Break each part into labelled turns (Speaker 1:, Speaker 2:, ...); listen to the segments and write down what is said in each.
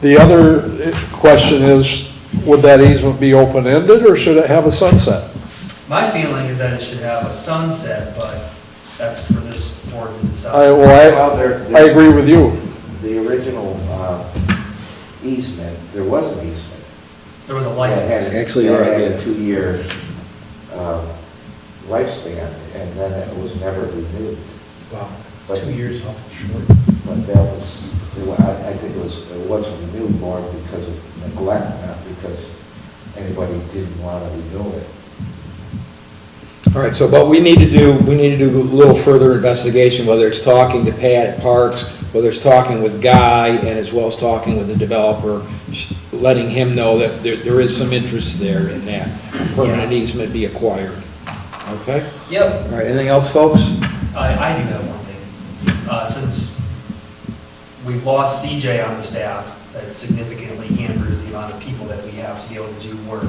Speaker 1: The other question is, would that easement be open-ended, or should it have a sunset?
Speaker 2: My feeling is that it should have a sunset, but that's for this board to
Speaker 1: I,
Speaker 2: decide.
Speaker 1: well,
Speaker 3: Well, there-
Speaker 1: I, I agree with you.
Speaker 3: The original uh, easement, there was an easement.
Speaker 2: There was a
Speaker 3: That
Speaker 2: license.
Speaker 3: had-
Speaker 4: Actually, you're
Speaker 3: that
Speaker 4: right,
Speaker 3: had
Speaker 4: yeah.
Speaker 3: a two-year um, lifespan, and then it was never renewed.
Speaker 5: Wow,
Speaker 3: But-
Speaker 5: two years off short.
Speaker 3: But that was, I I think it was, it wasn't renewed more because of neglect, not because anybody didn't want to renew it.
Speaker 4: All right, so, but we need to do, we need to do a little further investigation, whether it's talking to Pat at Parks, whether it's talking with Guy, and as well as talking with the developer, sh- letting him know that there, there is some interest there in that permanent
Speaker 2: Yeah.
Speaker 4: easement be acquired. Okay?
Speaker 2: Yep,
Speaker 4: All right, anything else, folks?
Speaker 2: I, I do have one thing. Uh, since we've lost CJ on the staff, that significantly hampers the amount of people that we have to be able to do work.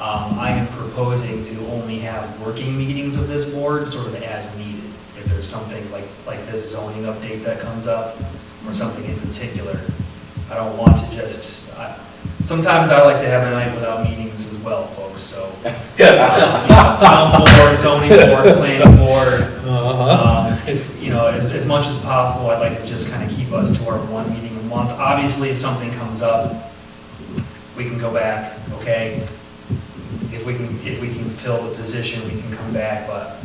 Speaker 2: Um, I am proposing to only have working meetings of this board sort of as needed. If there's something like, like this zoning update that comes up or something in particular. I don't want to just, I, sometimes I like to have a night without meetings as well, folks, so. uh, you know, Town board, zoning board, planning board,
Speaker 5: Uh-huh.
Speaker 2: um, If, you know, as, as much as possible, I'd like to just kind of keep us to our one meeting a month. Obviously, if something comes up, we can go back, okay? If we can, if we can fill the position, we can come back, but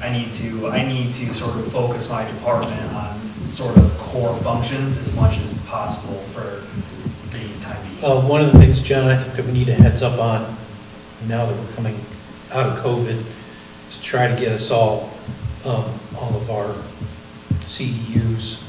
Speaker 2: I need to, I need to sort of focus my department on sort of core functions as much as possible for the time being.
Speaker 5: Uh, One of the things, John, I think that we need a heads up on, now that we're coming out of COVID, is to try to get us all, um, all of our CEUs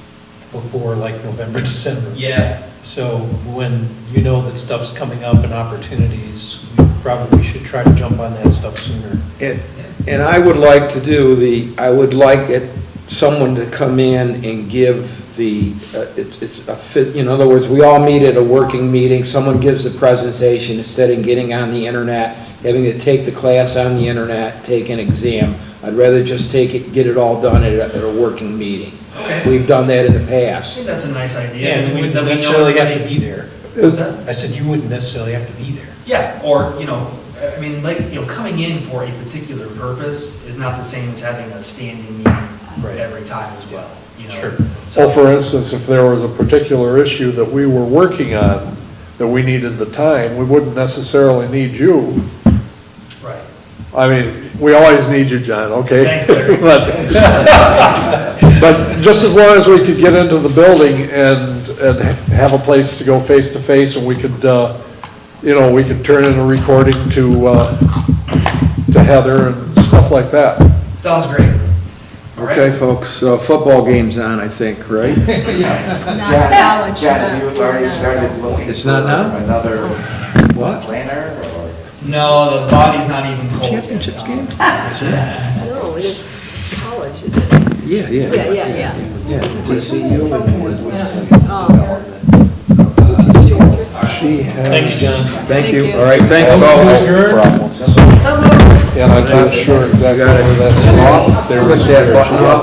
Speaker 5: before like November, December.
Speaker 2: Yeah,
Speaker 5: So when you know that stuff's coming up and opportunities, we probably should try to jump on that stuff sooner.
Speaker 4: And, and I would like to do the, I would like it, someone to come in and give the, uh, it's, it's a fit, in other words, we all meet at a working meeting, someone gives the presentation instead of getting on the internet, having to take the class on the internet, take an exam. I'd rather just take it, get it all done at a, at a working meeting.
Speaker 2: okay.
Speaker 4: We've done that in the
Speaker 2: I
Speaker 4: past.
Speaker 2: think that's a nice idea.
Speaker 5: And we
Speaker 2: That
Speaker 5: wouldn't
Speaker 2: we know
Speaker 5: necessarily have to
Speaker 2: everybody-
Speaker 5: be there.
Speaker 2: What's that?
Speaker 5: I said you wouldn't necessarily have to be there.
Speaker 2: Yeah, or, you know, I I mean, like, you know, coming in for a particular purpose is not the same as having a standing
Speaker 5: Right.
Speaker 2: meeting every time as well, you know?
Speaker 5: Sure.
Speaker 1: So for instance, if there was a particular issue that we were working on, that we needed the time, we wouldn't necessarily need you.
Speaker 2: Right.
Speaker 1: I mean, we always need you, John, okay?
Speaker 2: Thanks, Larry.
Speaker 1: But but just as long as we could get into the building and, and have a place to go face to face, and we could, uh, you know, we could turn in a recording to, uh, to Heather and stuff like that.
Speaker 2: Sounds great. All right.
Speaker 4: Okay, folks, uh, football game's on, I think, right?
Speaker 3: John-
Speaker 6: Not knowledge.
Speaker 3: John, you already started looking.
Speaker 4: It's not
Speaker 3: for
Speaker 4: now?
Speaker 3: Another
Speaker 4: What?
Speaker 3: planner or?
Speaker 2: No, the body's not even cold yet, Tom.
Speaker 7: No, it is college, it is.
Speaker 4: Yeah, yeah.
Speaker 7: Yeah, yeah, yeah.
Speaker 4: Yeah, TCU and-
Speaker 7: Um,
Speaker 1: She has.
Speaker 5: Thank you, John.
Speaker 4: Thank you,
Speaker 7: Thank you.
Speaker 4: all right, thanks, folks.
Speaker 3: Problems.
Speaker 7: So moved.
Speaker 1: And I'm not sure exactly where that's off.
Speaker 4: Put that button up.